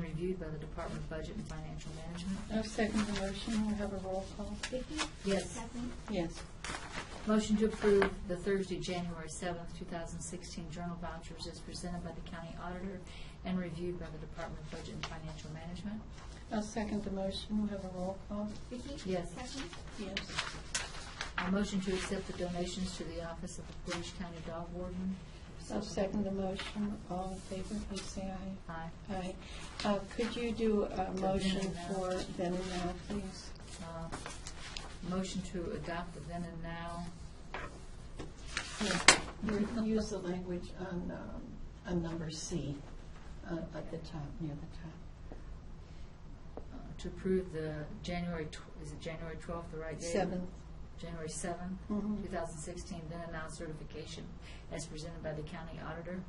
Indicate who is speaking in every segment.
Speaker 1: reviewed by the Department of Budget and Financial Management.
Speaker 2: I'll second the motion. We'll have a roll call.
Speaker 3: Vicki?
Speaker 1: Yes.
Speaker 3: Kathleen?
Speaker 2: Yes.
Speaker 1: Motion to approve the Thursday, January seventh, two thousand sixteen journal vouchers as presented by the county auditor and reviewed by the Department of Budget and Financial Management.
Speaker 2: I'll second the motion. We'll have a roll call.
Speaker 3: Vicki?
Speaker 1: Yes.
Speaker 3: Kathleen?
Speaker 2: Yes.
Speaker 1: A motion to accept the donations to the office of the Portage County Dog Warden.
Speaker 2: I'll second the motion. All in favor, please say aye.
Speaker 1: Aye.
Speaker 2: Aye. Uh, Could you do a
Speaker 1: The
Speaker 2: motion
Speaker 1: then and now.
Speaker 2: for then and now, please?
Speaker 1: Uh, Motion to adopt the then and now.
Speaker 2: You- Use the language on, um, on number C, uh, at the top, near the top.
Speaker 1: uh, to approve the January, tw- is it January 12th, the right date?
Speaker 2: Seventh.
Speaker 1: January 7th,
Speaker 2: Mhm.
Speaker 1: 2016, then announced certification as presented by the county auditor.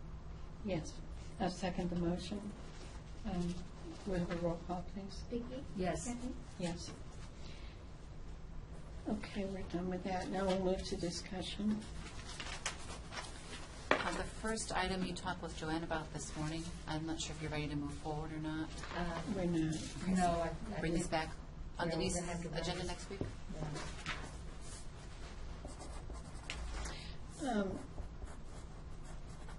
Speaker 2: Yes. I'll second the motion. Um, We'll have a roll call, please.
Speaker 3: Vicki?
Speaker 1: Yes.
Speaker 3: Kathleen?
Speaker 2: Yes. Okay, we're done with that. Now we'll move to discussion.
Speaker 4: Uh, The first item you talked with Joanne about this morning, I'm not sure if you're ready to move forward or not.
Speaker 1: Uh,
Speaker 2: We're not.
Speaker 1: No, I. I
Speaker 4: Bring this
Speaker 1: think-
Speaker 4: back on
Speaker 1: Yeah, we're
Speaker 4: Denise's
Speaker 1: gonna have to bring
Speaker 4: agenda
Speaker 1: this-
Speaker 4: next week?
Speaker 1: yeah.
Speaker 2: Um,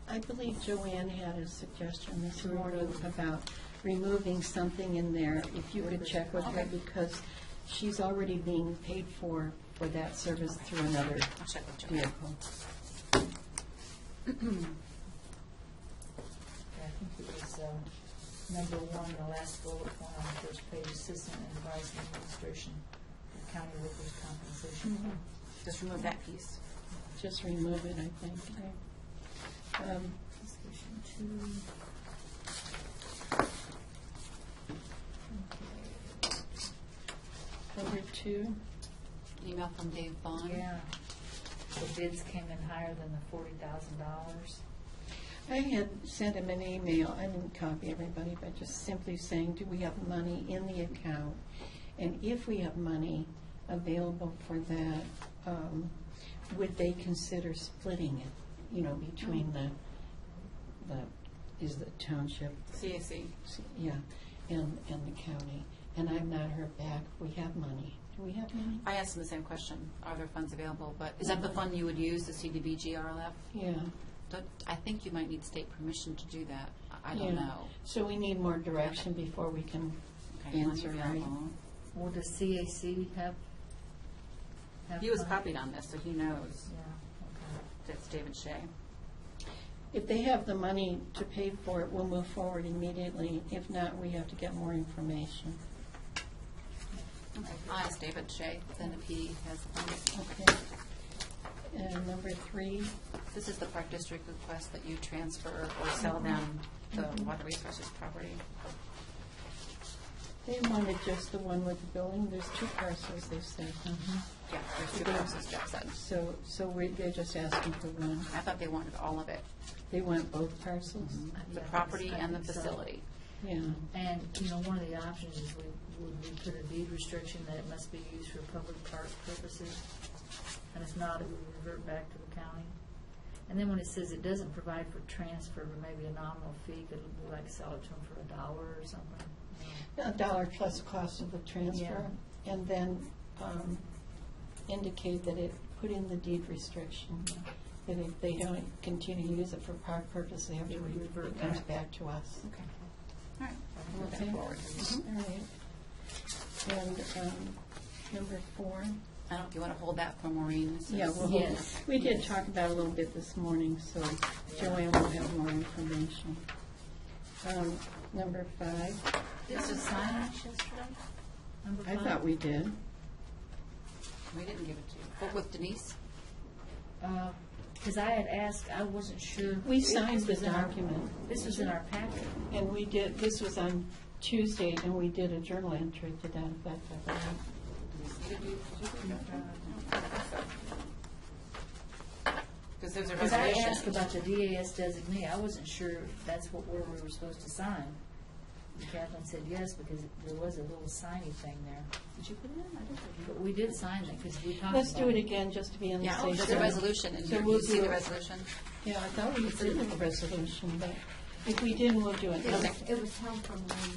Speaker 2: I believe Joanne had a suggestion this morning about removing something in there, if you could check with her,
Speaker 4: Okay.
Speaker 2: because she's already being paid for, for that service through another
Speaker 4: I'll check with Joanne.
Speaker 2: vehicle.
Speaker 1: Yeah, I think it was uh, number one, the last bullet point on the first page, assistant and advice and administration, of county workers' compensation. fund.
Speaker 4: Just remove that piece.
Speaker 2: Just remove it, I think. Um,
Speaker 1: Discussion two.
Speaker 2: Number two,
Speaker 4: Email from Dave Vaughn.
Speaker 1: Yeah. The bids came in higher than the forty thousand dollars.
Speaker 2: I had sent him an email, I didn't copy everybody, but just simply saying, do we have money in the account? And if we have money available for that, um, would they consider splitting it, you know, between the, the, is the township,
Speaker 4: CAC.
Speaker 2: yeah, and, and the county? And I've not heard back, we have money, do we have money?
Speaker 4: I asked him the same question, are there funds available? But is that the fund you would use, the CDBG RLF?
Speaker 2: Yeah,
Speaker 4: Don't- I think you might need state permission to do that. I- I don't
Speaker 2: Yeah.
Speaker 4: know.
Speaker 2: so we need more direction before we can
Speaker 4: Okay, money
Speaker 2: answer, right?
Speaker 4: available.
Speaker 1: Will the CAC have? have
Speaker 4: He was
Speaker 1: fun?
Speaker 4: copied on this, so he knows.
Speaker 1: Yeah, okay.
Speaker 4: That's David Shea.
Speaker 2: If they have the money to pay for it, we'll move forward immediately. If not, we have to get more information.
Speaker 4: I asked David Shea, then if he has the funds.
Speaker 2: Okay. And number three,
Speaker 4: This is the Park District request that you transfer or sell them the water resources property.
Speaker 2: they wanted just the one with the building. There's two parcels, they said.
Speaker 4: Yeah, there's two parcels, Jeff said.
Speaker 2: So, so we, they're just asking for one.
Speaker 4: I thought they wanted all of it,
Speaker 2: They want both parcels?
Speaker 4: the
Speaker 1: Yeah,
Speaker 4: property
Speaker 1: I
Speaker 4: and the
Speaker 1: think so.
Speaker 4: facility.
Speaker 2: Yeah.
Speaker 1: And, you know, one of the options is we, would we put a deed restriction that it must be used for public park purposes? And if not, it would revert back to the county. And then when it says it doesn't provide for transfer, but maybe a nominal fee, could we like sell it to them for a dollar or something?
Speaker 2: A dollar plus cost of the transfer. And then um, indicate that it, put in the deed restriction, that if they don't continue to use it for park purposes, they have to,
Speaker 1: It would
Speaker 2: re-
Speaker 1: revert
Speaker 2: it comes
Speaker 1: back.
Speaker 2: back to us.
Speaker 4: Okay. All right, I'll move
Speaker 2: Okay.
Speaker 4: that forward.
Speaker 2: All right. And um, number four.
Speaker 4: I don't, you want to hold that for Maureen? This
Speaker 2: Yeah,
Speaker 4: is-
Speaker 2: we'll hold it.
Speaker 1: Yes.
Speaker 2: We did talk about it a little bit this morning, so Joanne will have more information. Um, Number five,
Speaker 1: Did you sign it yesterday? Number
Speaker 2: I
Speaker 1: five?
Speaker 2: thought we did.
Speaker 4: We didn't give it to you. But with Denise?
Speaker 1: Because uh, I had asked, I wasn't sure.
Speaker 2: We signed
Speaker 1: This was
Speaker 2: the
Speaker 1: in our-
Speaker 2: document.
Speaker 1: This was in our packet.
Speaker 2: And we did, this was on Tuesday, and we did a journal entry to that effect. I believe.
Speaker 4: Because there's a
Speaker 1: Because I asked
Speaker 4: resolution.
Speaker 1: about the DAS designee, I wasn't sure if that's what, where we were supposed to sign. And Kathleen said yes, because there was a little signy thing there.
Speaker 4: Did you put it in? I don't think you-
Speaker 1: But we did sign it, because we talked about it.
Speaker 2: Let's do it again, just to be on the
Speaker 4: Yeah,
Speaker 2: safe side.
Speaker 4: there's a resolution in
Speaker 2: So
Speaker 4: here.
Speaker 2: we'll
Speaker 4: You see
Speaker 2: do
Speaker 4: the
Speaker 2: it.
Speaker 4: resolution?
Speaker 2: Yeah, I thought we did a resolution, but if we didn't, we'll do it.
Speaker 3: It was home from Wayne.